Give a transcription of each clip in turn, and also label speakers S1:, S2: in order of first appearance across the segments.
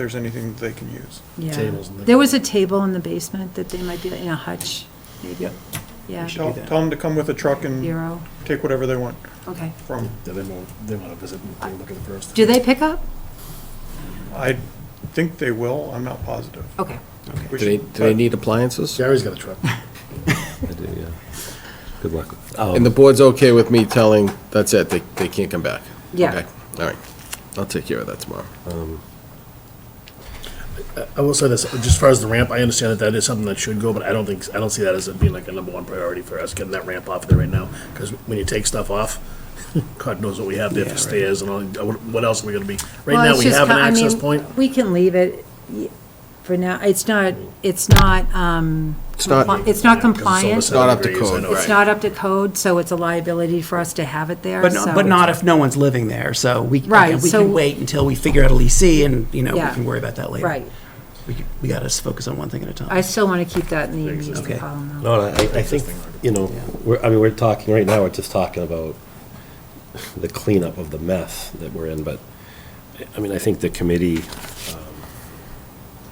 S1: there's anything that they can use.
S2: Yeah.
S3: Tables and things.
S2: There was a table in the basement that they might be in a hutch, maybe.
S3: Yep.
S2: Yeah,
S3: should-
S1: Tell,
S3: do that.
S1: tell them to come with a truck and
S2: zero,
S1: take whatever they want
S2: okay.
S1: from,
S3: Yeah, they want, they want to visit, and they were looking first.
S2: Do they pick up?
S1: I think they will, I'm not positive.
S2: Okay.
S1: We
S4: Do they,
S1: should-
S4: do they need appliances?
S3: Gary's got a truck.
S5: I do, yeah. Good luck.
S4: And the board's okay with me telling, that's it, they, they can't come back?
S2: Yeah.
S4: Okay, All right, I'll take care of that tomorrow.
S3: I will say this, just as far as the ramp, I understand that that is something that should go, but I don't think, I don't see that as being like a number one priority for us, getting that ramp off there right now. Because when you take stuff off, God knows what we have there for stairs and all, what what else are we gonna be? Right
S2: Well,
S3: now,
S2: it's
S3: we
S2: just
S3: have an
S2: ki- I
S3: access
S2: mean,
S3: point.
S2: We can leave it y- for now. It's not, it's not, um,
S4: It's not-
S2: compli- it's not compliant.
S4: It's not up to code,
S2: It's not up to code, so it's a liability for us to have it there,
S6: But,
S2: so-
S6: no- but not if no one's living there, so we,
S2: Right,
S6: we
S2: so-
S6: can wait until we figure out a leasee and, you know, we
S2: Yeah.
S6: can worry about that later.
S2: Right.
S6: We, c- we gotta s- focus on one thing at a
S2: I
S6: time.
S2: still want to keep that in the immediate
S6: Okay.
S2: column, though.
S5: No, I, I think, you know, we're, I mean, we're talking, right now, we're just talking about the cleanup of the mess that we're in, but, I mean, I think the committee um,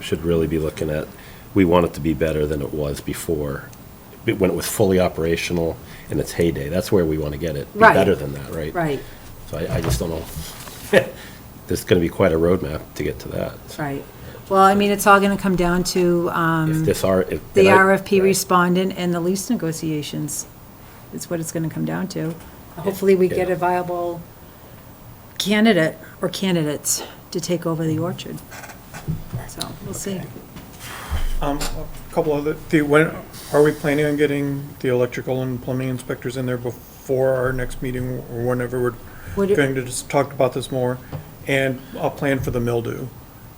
S5: should really be looking at, we want it to be better than it was before, b- when it was fully operational in its heyday. That's where we want to get it. Be
S2: Right.
S5: Better than that, right?
S2: Right,
S5: So I, I just don't know. There's going to be quite a roadmap to get to that.
S2: right. Well, I mean, it's all going to come down to um,
S5: If this are, if.
S2: the
S5: and I-
S2: RFP
S5: right.
S2: respondent and the lease negotiations. It's what it's going to come down to. Hopefully, we get
S5: Yeah.
S2: a viable candidate or candidates to take over
S5: Mm-hmm.
S2: the orchard. So, we'll see.
S1: Um, a couple other, the, when, are we planning on getting the electrical and plumbing inspectors in there before our next meeting or whenever we're
S2: Would it-
S1: going to just talk about this more? And a plan for the mildew,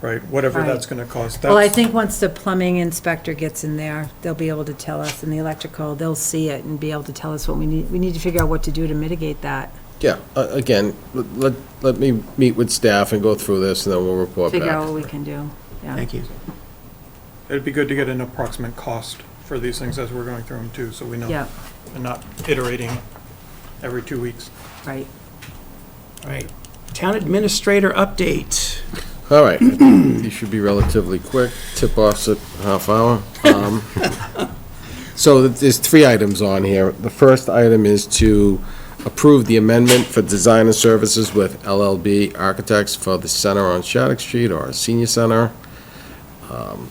S1: right? Whatever
S2: Right.
S1: that's gonna cost.
S2: Well, I
S1: That's-
S2: think once the plumbing inspector gets in there, they'll be able to tell us, and the electrical, they'll see it and be able to tell us what we need. We need to figure out what to do to mitigate that.
S4: Yeah, a- again, let- let, let me meet with staff and go through this, and then we'll report
S2: Figure out what
S4: back.
S2: we can do, yeah.
S6: Thank you.
S1: It'd be good to get an approximate cost for these things as we're going through them too, so we know.
S2: Yeah,
S1: And not iterating every two weeks.
S2: right.
S6: All right. Town administrator update.
S4: All right, these should be relatively quick, tip-offs at half hour. Um, So there's three items on here. The first item is to approve the amendment for designer services with LLB Architects for the center on Shattuck Street or Senior Center. Um,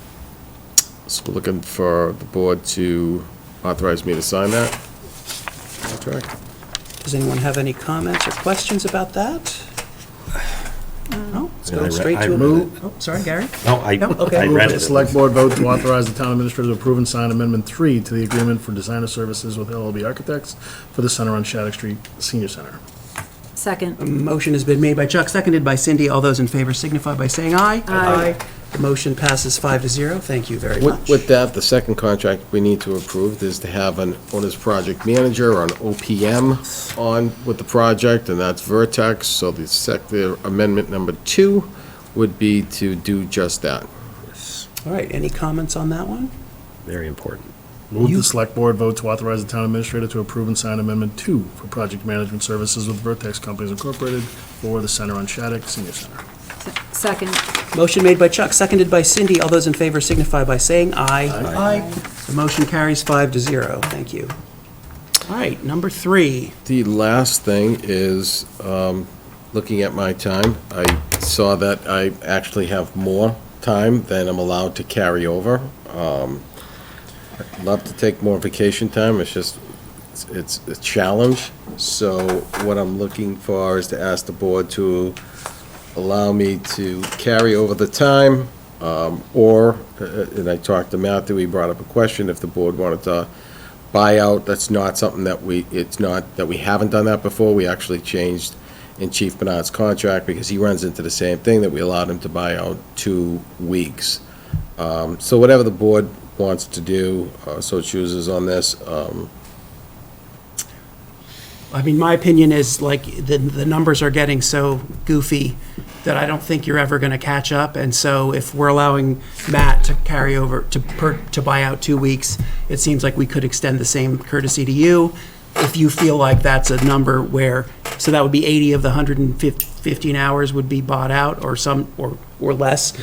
S4: So we're looking for the board to authorize me to sign that contract.
S6: Does anyone have any comments or questions about that? No? Let's
S5: I
S6: go
S5: re-
S6: straight
S5: I
S6: to a
S5: read
S6: move. Oh, sorry, Gary?
S5: No, I,
S6: No, okay.
S5: I
S6: Move
S5: read
S3: Move that The
S5: it.
S3: select board vote to authorize the town administrator to approve and sign amendment three to the agreement for designer services with LLB Architects for the center on Shattuck Street Senior Center.
S2: Second,
S6: Motion has been made by Chuck, seconded by Cindy. All those in favor signify by saying aye.
S2: Aye.
S6: The motion passes five to zero. Thank you very
S4: With
S6: much.
S4: with that, the second contract we need to approve is to have an owner's project manager or an OPM on with the project, and that's Vertex. So the sec, the amendment number two would be to do just that.
S6: All right, any comments on that one?
S5: Very important.
S3: Move
S6: You-
S3: the select board vote to authorize the town administrator to approve and sign amendment two for project management services with Vertex Companies Incorporated for the center on Shattuck Senior Center.
S2: se- second,
S6: Motion made by Chuck, seconded by Cindy. All those in favor signify by saying aye. Aye. The motion carries five to zero. Thank you. All right, number three.
S4: The last thing is, um, looking at my time, I saw that I actually have more time than I'm allowed to carry over. Um, I'd Love to take more vacation time, it's just, it's- it's a challenge. So what I'm looking for is to ask the board to allow me to carry over the time, um, or, uh, and I talked to Matthew, he brought up a question, if the board wanted to buyout, that's not something that we, it's not, that we haven't done that before. We actually changed in Chief Bernard's contract because he runs into the same thing, that we allowed him to buy out two weeks. Um, So whatever the board wants to do, uh, so chooses on this, um,
S6: I mean, my opinion is like, the, the numbers are getting so goofy that I don't think you're ever going to catch up. And so if we're allowing Matt to carry over, to, per, to buy out two weeks, it seems like we could extend the same courtesy to you. If you feel like that's a number where, so that would be 80 of the 115 hours would be bought out or some, or, or less.